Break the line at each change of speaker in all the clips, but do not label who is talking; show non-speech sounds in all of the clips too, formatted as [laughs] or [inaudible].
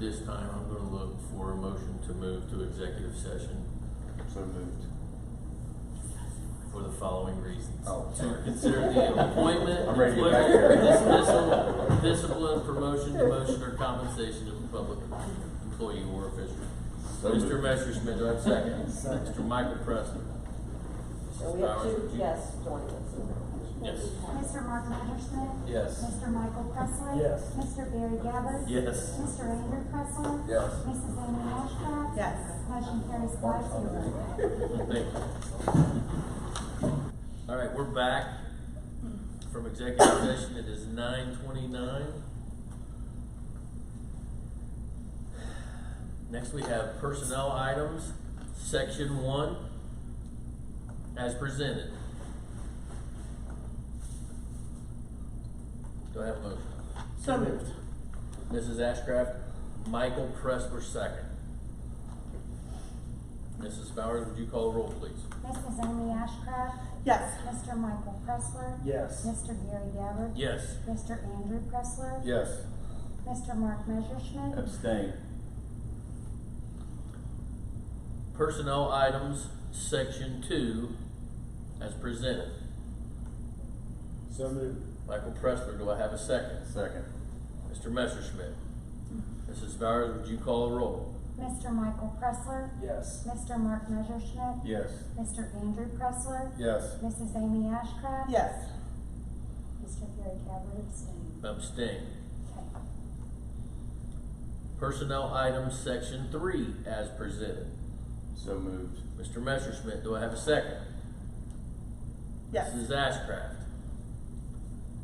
This time, I'm gonna look for a motion to move to executive session
So moved.
for the following reasons.
Oh,
To
sorry.
consider
[laughs]
the appointment,
I'm ready to get back
employment,
there.
dismissal, discipline, promotion, demotion, or compensation of a public employee or official.
So moved.
Mr. Messerschmidt, do I have a second? Mr. Michael Pressler.
So
Mrs.
we have
Bowers,
two
would you-
guests joining us.
Yes.
Mr. Mark Messerschmidt.
Yes.
Mr. Michael Pressler.
Yes.
Mr. Barry Gabbert.
Yes.
Mr. Andrew Pressler.
Yes.
Mrs. Amy Ashcraft.
Yes.
Motion carries five zero.
Thank you. All right, we're back from executive session. It is nine twenty-nine. Next, we have personnel items, section one, as presented. Do I have a motion?
So moved.
Mrs. Ashcraft, Michael Pressler, second. Mrs. Bowers, would you call the roll, please?
Mrs. Amy Ashcraft.
Yes.
Mr. Michael Pressler.
Yes.
Mr. Barry Gabbert.
Yes.
Mr. Andrew Pressler.
Yes.
Mr. Mark Messerschmidt.
Abstain.
Personnel items, section two, as presented.
So moved.
Michael Pressler, do I have a second?
Second.
Mr. Messerschmidt. Mrs. Bowers, would you call the roll?
Mr. Michael Pressler.
Yes.
Mr. Mark Messerschmidt.
Yes.
Mr. Andrew Pressler.
Yes.
Mrs. Amy Ashcraft.
Yes.
Mr. Barry Gabbert abstained.
Abstain.
Okay.
Personnel items, section three, as presented.
So moved.
Mr. Messerschmidt, do I have a second?
Yes.
Mrs. Ashcraft.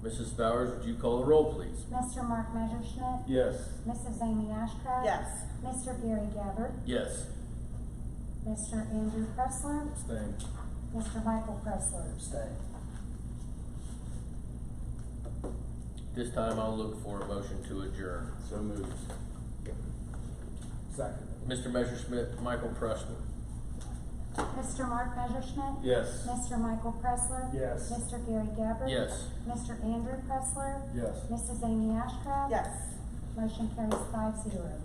Mrs. Bowers, would you call the roll, please?
Mr. Mark Messerschmidt.
Yes.
Mrs. Amy Ashcraft.
Yes.
Mr. Gary Gabbert.
Yes.
Mr. Andrew Pressler.
Abstain.
Mr. Michael Pressler.
Stay.
This time I'll look for a motion to adjourn.
So moved.
Second.
Mr. Messerschmidt, Michael Pressler.
Mr. Mark Messerschmidt.
Yes.
Mr. Michael Pressler.
Yes.
Mr. Gary Gabbert.
Yes.
Mr. Andrew Pressler.
Yes.
Mrs. Amy Ashcraft.
Yes.
Motion carries five zero.